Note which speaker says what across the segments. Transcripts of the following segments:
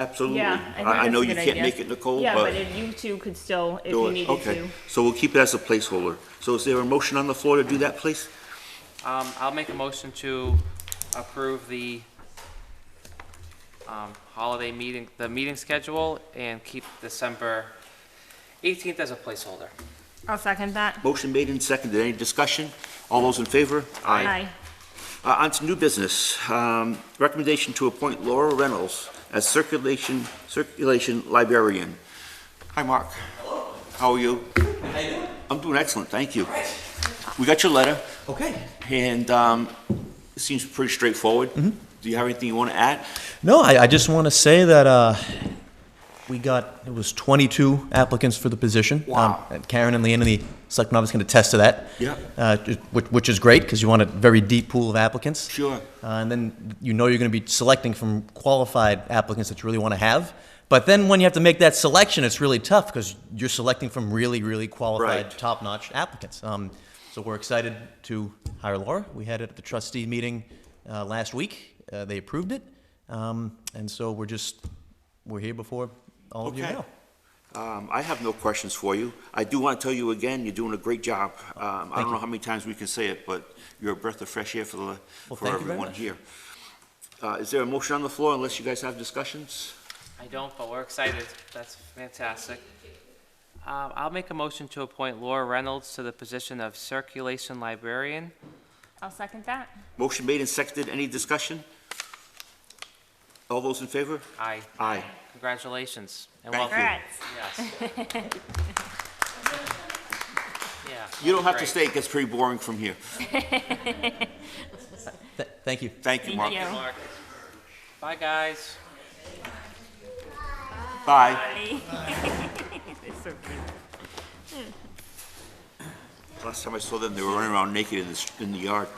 Speaker 1: Absolutely.
Speaker 2: Yeah, I think
Speaker 1: I
Speaker 2: that's
Speaker 1: know
Speaker 2: a
Speaker 1: you
Speaker 2: good
Speaker 1: can't
Speaker 2: idea.
Speaker 1: make it, Nicole,
Speaker 2: Yeah, but
Speaker 1: but
Speaker 2: if you two could still, if
Speaker 1: do
Speaker 2: you
Speaker 1: it.
Speaker 2: needed
Speaker 1: Okay,
Speaker 2: to.
Speaker 1: so we'll keep it as a placeholder. So is there a motion on the floor to do that, please?
Speaker 3: Um, I'll make a motion to approve the, um, holiday meeting, the meeting schedule and keep December eighteenth as a placeholder.
Speaker 2: I'll second that.
Speaker 1: Motion made and seconded. Any discussion? All those in favor? Uh, On to new business. Um, Recommendation to appoint Laura Reynolds as circulation, circulation librarian. Hi, Mark. How are you? I'm doing excellent, thank you. We got your letter,
Speaker 4: Okay.
Speaker 1: and um, it seems pretty straightforward. Do you have anything you want to add?
Speaker 4: No, I, I just want to say that uh, we got, it was 22 applicants for the position.
Speaker 1: Wow.
Speaker 4: Um, Karen and Leanne and the selectmen office can attest to that.
Speaker 1: Yeah.
Speaker 4: Uh, ju- Which, which is great, because you want a very deep pool of applicants.
Speaker 1: Sure.
Speaker 4: Uh, And then you know you're going to be selecting from qualified applicants that you really want to have. But then when you have to make that selection, it's really tough, because you're selecting from really, really qualified,
Speaker 1: Right.
Speaker 4: top-notch applicants. Um, So we're excited to hire Laura. We had it at the trustee meeting uh, last week. Uh, They approved it. Um, And so we're just, we're here before all of you
Speaker 1: Okay.
Speaker 4: now.
Speaker 1: Um, I have no questions for you. I do want to tell you again, you're doing a great job. Um, I don't know how many times we can say it, but you're a breath of fresh air for the, for
Speaker 4: thank you very
Speaker 1: everyone
Speaker 4: much.
Speaker 1: here. Uh, Is there a motion on the floor unless you guys have discussions?
Speaker 3: I don't, but we're excited. That's fantastic. Um, I'll make a motion to appoint Laura Reynolds to the position of circulation librarian.
Speaker 2: I'll second that.
Speaker 1: Motion made and seconded. Any discussion? All those in favor?
Speaker 3: Aye.
Speaker 1: Aye.
Speaker 3: Congratulations. and
Speaker 1: Thank
Speaker 3: welcome.
Speaker 2: Alright.
Speaker 3: Yes. Yeah.
Speaker 1: You don't have to
Speaker 3: great.
Speaker 1: stay. It gets pretty boring from here.
Speaker 4: Th- Thank you.
Speaker 1: Thank you, Mark.
Speaker 2: Thank you.
Speaker 3: Mark. Bye, guys.
Speaker 1: Bye.
Speaker 2: They're so cute.
Speaker 1: Last time I saw them, they were running around naked in the, s- in the yard.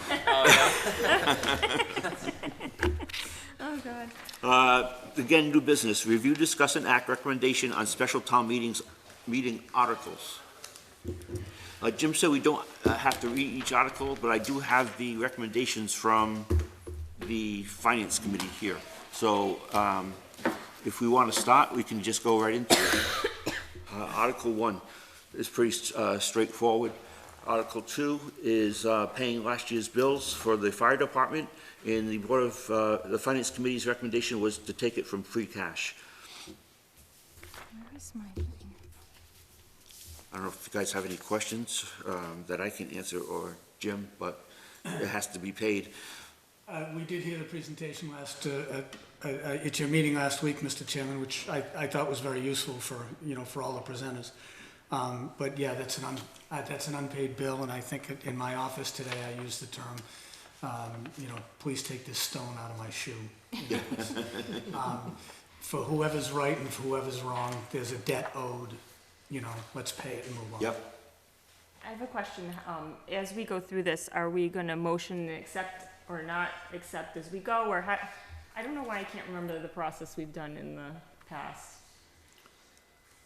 Speaker 2: Oh, God.
Speaker 1: Uh, Again, new business. Review, discuss, and act recommendation on special town meetings, meeting articles. Uh, Jim said we don't uh, have to read each article, but I do have the recommendations from the Finance Committee here. So um, if we want to start, we can just go right into it. Uh, Article one is pretty uh, straightforward. Article two is uh, paying last year's bills for the fire department, and the Board of, uh, the Finance Committee's recommendation was to take it from free cash.
Speaker 2: Where's my
Speaker 1: I don't know if you guys have any questions um, that I can answer, or Jim, but it has to be paid.
Speaker 5: Uh, We did hear the presentation last, uh, at- uh, uh, at your meeting last week, Mr. Chairman, which I I thought was very useful for, you know, for all the presenters. Um, But yeah, that's an, un- uh, that's an unpaid bill, and I think it- in my office today, I used the term, um, you know, please take this stone out of my shoe. you know. Um, For whoever's right and for whoever's wrong, there's a debt owed, you know, let's pay it and move on.
Speaker 1: Yep.
Speaker 2: I have a question. Um, as we go through this, are we gonna motion and accept or not accept as we go, or how? I don't know why I can't remember the process we've done in the past.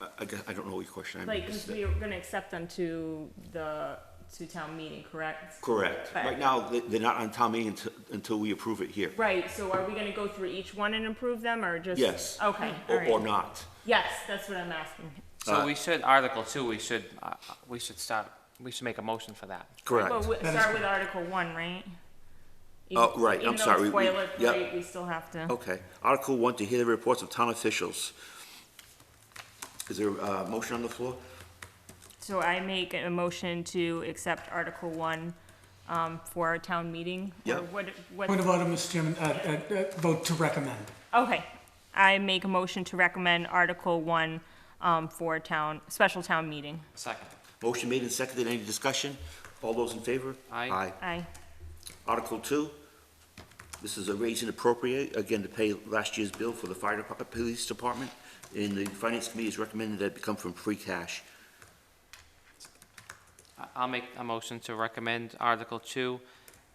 Speaker 1: I- I gu- I don't know what your question. I
Speaker 2: Like, 'cause
Speaker 1: missed
Speaker 2: we
Speaker 1: it.
Speaker 2: are gonna accept them to the, to town meeting, correct?
Speaker 1: Correct.
Speaker 2: But-
Speaker 1: Right now, they- they're not on town meeting until- until we approve it here.
Speaker 2: Right, so are we gonna go through each one and approve them, or just?
Speaker 1: Yes.
Speaker 2: Okay,
Speaker 1: Or- Or
Speaker 2: alright.
Speaker 1: not.
Speaker 2: Yes, that's what I'm asking.
Speaker 1: Uh,
Speaker 3: So we should, Article two, we should, uh, we should start, we should make a motion for that.
Speaker 1: Correct.
Speaker 2: Well, we- start with Article One, right? Even-
Speaker 1: Oh, right, I'm sorry, we-
Speaker 2: Even
Speaker 1: we-
Speaker 2: though it's
Speaker 1: yep.
Speaker 2: boilerplate, we still have to.
Speaker 1: Okay. Article one, to hear the reports of town officials. Is there a uh, motion on the floor?
Speaker 2: So I make a motion to accept Article One, um, for our town meeting? or
Speaker 1: Yeah.
Speaker 2: What, what,
Speaker 5: Point of order, Mr. Chairman, uh, uh, uh, vote to recommend.
Speaker 2: okay. I make a motion to recommend Article One, um, for town, special town meeting.
Speaker 3: Second.
Speaker 1: Motion made and seconded. Any discussion? All those in favor?
Speaker 3: Aye.
Speaker 2: Aye.
Speaker 1: Article two, this is a raise and appropriate, again, to pay last year's bill for the fire department, police department. And the finance committee has recommended that it become from free cash.
Speaker 3: I- I'll make a motion to recommend Article two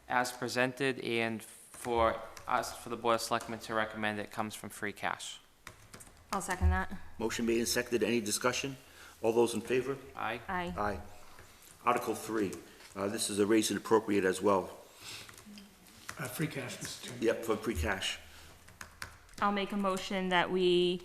Speaker 3: as presented and for us, for the Board of Selectmen to recommend it comes from free cash.
Speaker 2: I'll second that.
Speaker 1: Motion made and seconded. Any discussion? All those in favor?
Speaker 3: Aye.
Speaker 2: Aye.
Speaker 1: Aye. Article three, uh, this is a raise and appropriate as well.
Speaker 5: Uh, Free cash, Mr. Chairman.
Speaker 1: Yep, for free cash.
Speaker 2: I'll make a motion that we